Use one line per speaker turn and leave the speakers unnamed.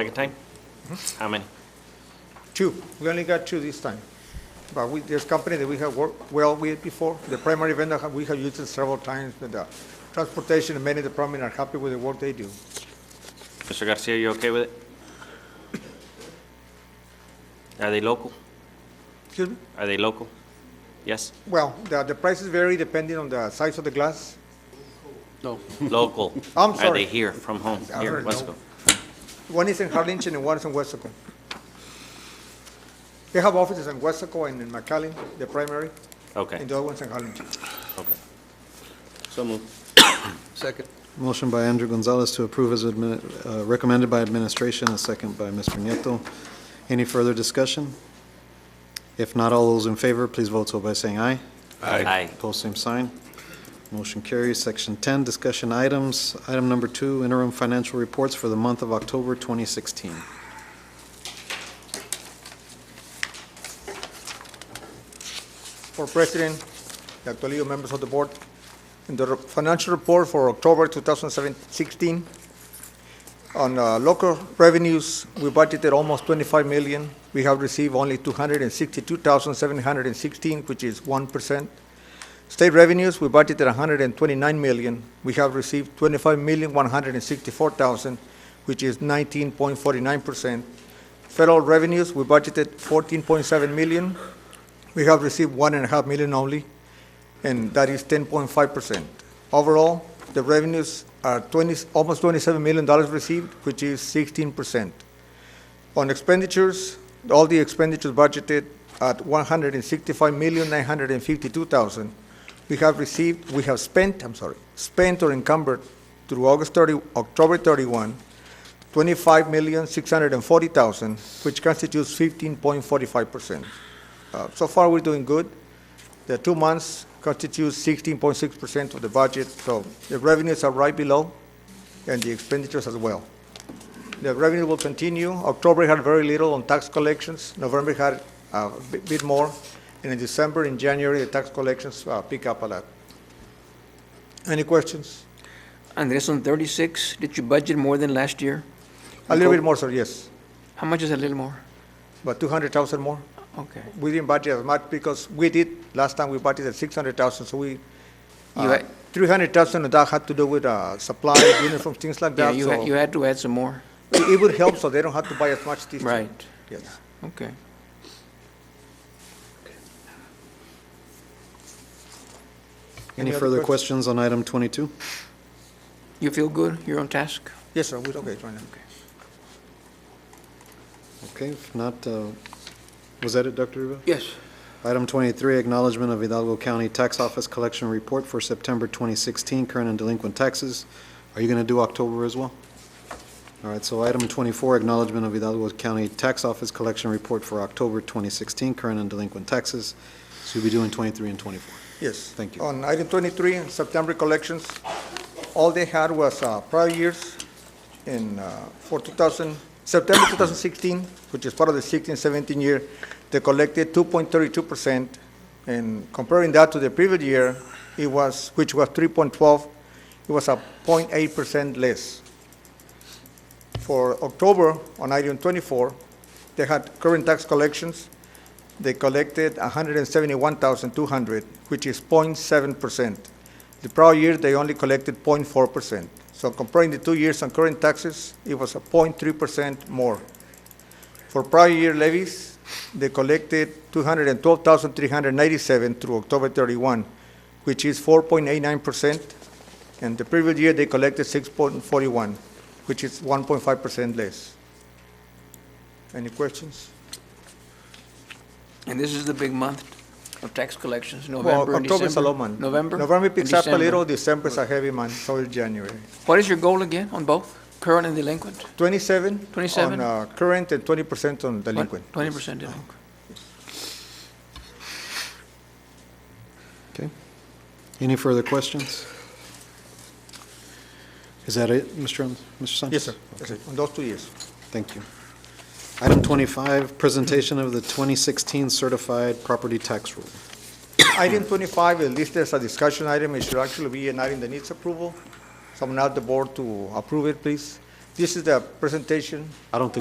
Second time? How many?
Two. We only got two this time. But we, there's company that we have worked well with before. The primary vendor, have- we have used it several times, but the transportation and many department are happy with the work they do.
Mr. Garcia, you okay with it? Are they local?
Excuse me?
Are they local? Yes?
Well, the, the prices vary depending on the size of the glass.
Local.
I'm
Are they
sorry.
here, from home?
I
Here,
heard
let's
no.
go.
One is in Harlingen and one is in Westaco. They have offices in Westaco and in McAllen, the primary,
Okay,
and the other one's in Harlingen.
okay. So moved.
Second.
Motion by Andrew Gonzalez to approve as admin- uh, recommended by administration, a second by Mr. Nieto. Any further discussion? If not, all those in favor, please vote so by saying aye.
Aye.
Post same sign. Motion carries. Section 10, discussion items. Item number two, interim financial reports for the month of October 2016.
for President, the Toledo members of the board. In the re- financial report for October 2016, on uh, local revenues, we budgeted almost 25 million. We have received only 262,716, which is 1%. State revenues, we budgeted 129 million. We have received 25,164,000, which is 19.49%. Federal revenues, we budgeted 14.7 million. We have received one and a half million only, and that is ten point five percent. Overall, the revenues are twenty, almost twenty-seven million dollars received, which is sixteen percent. On expenditures, all the expenditures budgeted at one hundred and sixty-five million, nine hundred and fifty-two thousand. We have received, we have spent, I'm sorry, spent or encumbered through August thirty, October thirty-one, twenty-five million, six hundred and forty thousand, which constitutes fifteen point forty-five percent. Uh, So far, we're doing good. The two months constitute 16.6% of the budget, so the revenues are right below, and the expenditures as well. The revenue will continue. October had very little on tax collections, November had uh, a bit- bit more, and in December and January, the tax collections uh, pick up a lot. Any questions?
Andres, on 36, did you budget more than last year?
A little bit more, sir, yes,
How much is a little more?
but 200,000 more.
Okay.
We didn't budget as much because we did, last time we budgeted 600,000, so we,
You
uh,
had-
300,000 of that had to do with uh, supply, uniforms, things like
Yeah,
that.
you
so
had, you had to add some more.
It it would help so they don't have to buy as much this time.
Right.
Yes.
Okay.
Any
Any
other
further
questions?
questions on item 22?
You feel good? You're on task?
Yes, sir, we're okay right now.
Okay, if not, uh, was that it, Dr. Rivera?
Yes.
Item 23, acknowledgment of Hidalgo County Tax Office Collection Report for September 2016, current and delinquent taxes. Are you going to do October as well? All right, so item 24, acknowledgment of Hidalgo County Tax Office Collection Report for October 2016, current and delinquent taxes. So you'll be doing 23 and 24.
Yes.
Thank you.
On item 23, in September collections, all they had was uh, prior years in, uh, for 2000, September 2016, which is part of the 16, 17 year, they collected 2.32%. And comparing that to the previous year, it was, which was 3.12, it was a 0.8% less. For October, on item 24, they had current tax collections, they collected 171,200, which is 0.7%. The prior year, they only collected 0.4%. So comparing the two years on current taxes, it was a 0.3% more. For prior year levies, they collected 212,397 through October 31, which is 4.89%. And the previous year, they collected 6.41, which is 1.5% less. Any questions?
And this is the big month of tax collections,
Well,
November and
October is a low
December?
month.
November?
November
and
picks up a
December.
little, December is a heavy month, so is January.
What is your goal again on both, current and delinquent?
Twenty-seven?
27?
On uh, current and twenty percent on delinquent.
Twenty percent delinquent.
Okay. Any further questions? Is that it, Mr. Hon- Mr. Sanchez?
Yes, sir. Yes, sir. On those two years.
Thank you. Item 25, presentation of the 2016 certified property tax rule.
Item twenty-five is listed as a discussion item. It should actually be an item that needs approval. Someone at the board to approve it, please.
This is the presentation
I don't think